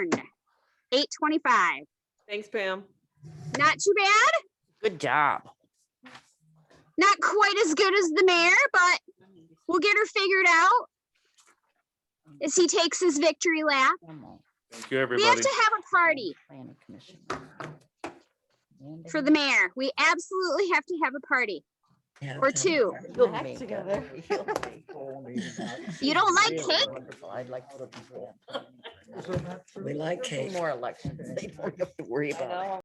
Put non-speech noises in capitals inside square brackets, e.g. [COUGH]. eight twenty-five. Thanks, Pam. Not too bad, Good job. not quite as good as the mayor, but we'll get her figured out. As he takes his victory lap. Thank you, We have everybody. to have a party Planning commission. for the mayor. We absolutely have to have a party. or two. You'll act together. You don't like cake? I'd like. to see that. We like cake. More elections. [LAUGHS] They don't have to worry I about it. know.